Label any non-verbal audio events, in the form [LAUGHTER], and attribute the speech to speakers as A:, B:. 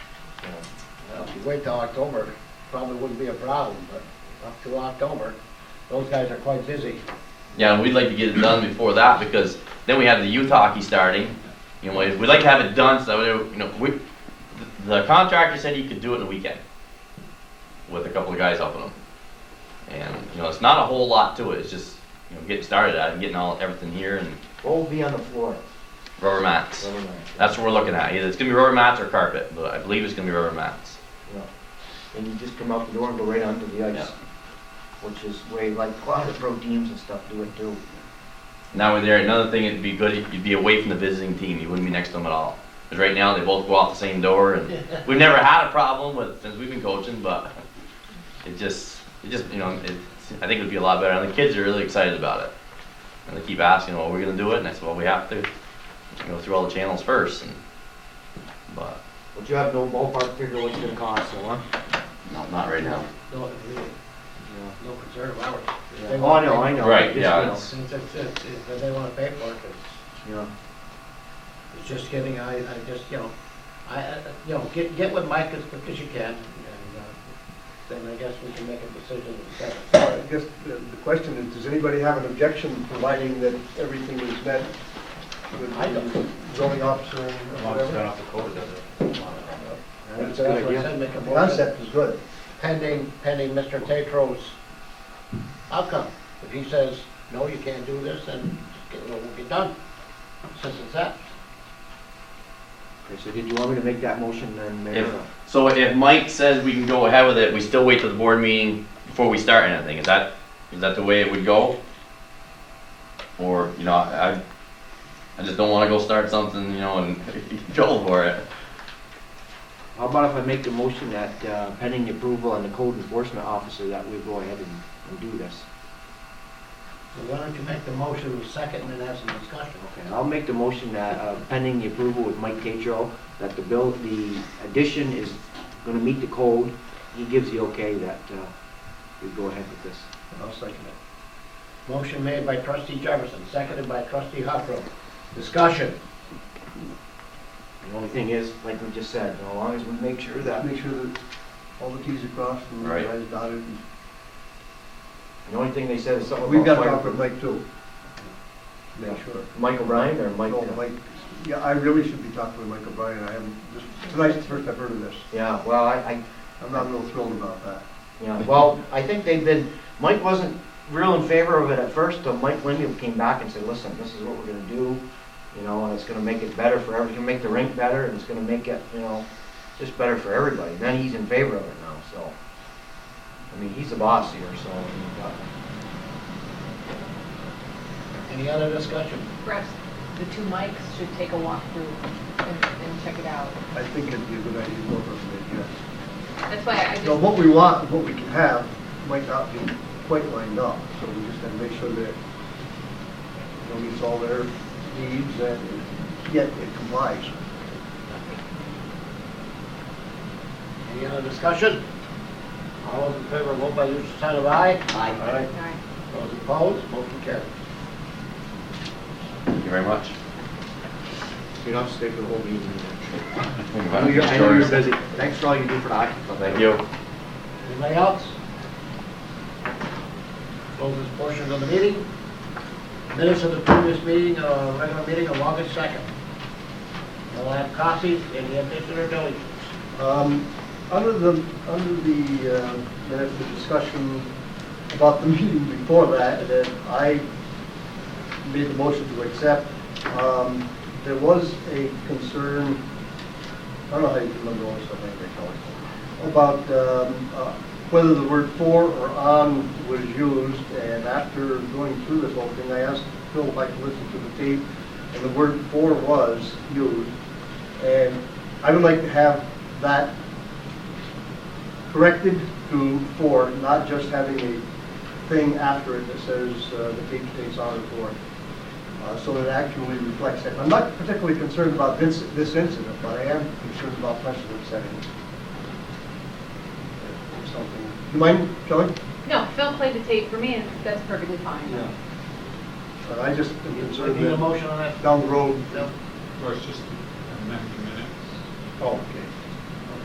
A: you wait till October, probably wouldn't be a problem, but up to October, those guys are quite busy.
B: Yeah, and we'd like to get it done before that because then we have the youth hockey starting. You know, we'd we'd like to have it done so that, we- you know, we, the contractor said he could do it in a weekend with a couple of guys helping him. And, you know, it's not a whole lot to it, it's just, you know, getting started at it and getting all, everything here and
C: What will be on the floor?
B: rubber mats.
C: Never mind.
B: That's what we're looking at, either it's gonna be rubber mats or carpet, but I believe it's gonna be rubber mats.
C: Yeah. And you just come out the door and go right onto the ice,
B: Yeah.
C: which is way, like, a lot of pro teams and stuff do it too.
B: Now we're there, another thing, it'd be good, if you'd be away from the visiting team, you wouldn't be next to them at all. Because right now, they both go out the same door, and we've never had a problem with, since we've been coaching, but it just, it just, you know, it, I think it'd be a lot better, and the kids are really excited about it. And they keep asking, well, we're gonna do it, and I said, well, we have to go through all the channels first, and, but,
C: But you have no ballpark figure what it's gonna cost, so, huh?
B: no, not right now.
A: No, really, no concern of ours. If they
C: Yeah. Oh, I
A: wanna
C: know,
A: pay-
C: I know.
B: Right,
C: Just, you
B: yeah,
C: know,
B: it's-
A: Since it's, it's, if they wanna pay for it, it's,
C: You know,
A: it's just getting, I, I just, you know, I, I- you know, get, get with Mike as quick as you can, and, uh, then I guess we can make a decision instead.
D: I guess the the question is, does anybody have an objection providing that everything is met with
A: I don't.
D: the zoning officer and whatever?
A: That's
D: That's
A: what
D: a
A: I
D: good
A: said, make a
D: The
A: motion
D: concept is good.
A: pending, pending Mr. Tatro's outcome. If he says, no, you can't do this, then it will be done. Simple as that.
C: okay, so did you want me to make that motion then, Mayor?
B: If- So if Mike says we can go ahead with it, we still wait till the board meeting before we start anything, is that, is that the way it would go? Or, you know, I, I just don't wanna go start something, you know, and [LAUGHS] go for it.
C: How about if I make the motion that uh, pending the approval and the code enforcement officer that we go ahead and, and do this?
A: So why don't you make the motion with second and then have some discussion?
C: Okay, I'll make the motion that uh, pending the approval with Mike Tatro, that the bill, the addition is gonna meet the code. He gives the okay that uh, we go ahead with this.
A: I'll second it. Motion made by trustee Jefferson, seconded by trustee Huckrow. Discussion.
C: The only thing is, like we just said, as long as we make sure that,
D: Make sure that all the Ts are crossed and the
B: Right.
D: Is dotted.
C: the only thing they said is something about.
D: We've got to
C: fire-
D: talk with Mike too. Make sure.
C: Mike O'Brien or Mike?
D: No, Mike, yeah, I really should be talking with Mike O'Brien. I haven't, this, tonight's the first I've heard of this.
C: Yeah, well, I, I,
D: I'm not real thrilled about that.
C: Yeah, well, I think they've been, Mike wasn't real in favor of it at first, till Mike Lindy came back and said, listen, this is what we're gonna do, you know, and it's gonna make it better for every, it's gonna make the rink better, and it's gonna make it, you know, just better for everybody, then he's in favor of it now, so. I mean, he's the boss here, so, uh,
A: Any other discussion?
E: Perhaps the two mics should take a walk through and, and check it out.
D: I think it'd be a good idea to go for it, yes.
E: That's why I
D: So what
E: just,
D: we want, and what we can have, might not be quite lined up, so we just have to make sure that it meets all their needs and yet it complies.
A: Any other discussion? All those in favor, vote by usual sign of aye. Aye.
E: Alright.
A: Those opposed, motion carries.
B: Thank you very much.
C: you don't have to stay for the whole meeting. I know you're, I know you're
B: Thank
C: busy, thanks for all you do for the hockey club.
B: you.
A: Anybody else? Close this portion of the meeting. Minutes of the previous meeting, uh, regular meeting of August 2nd. We'll have copies in the official building.
D: Um, Under the, under the uh, minutes of discussion about the [LAUGHS] meeting before that, that I made the motion to accept, um, there was a concern, I don't know how you can remember all this, I think they call it, about um, uh, whether the word for or on was used, and after going through this whole thing, I asked Phil if I could listen to the tape, and the word for was used, and I would like to have that corrected to for, not just having a thing after it that says uh, the tape stays on or for. uh, So that it actually reflects that. I'm not particularly concerned about this, this incident, but I am concerned about precedent setting. Or Something. You mind, Kelly?
E: No, Phil played the tape for me and that's perfectly fine.
D: But Uh, I just am concerned
A: Need a
D: that
A: motion on that?
D: down the road.
A: No.
F: Or it's just amend the minutes.
D: Oh, okay.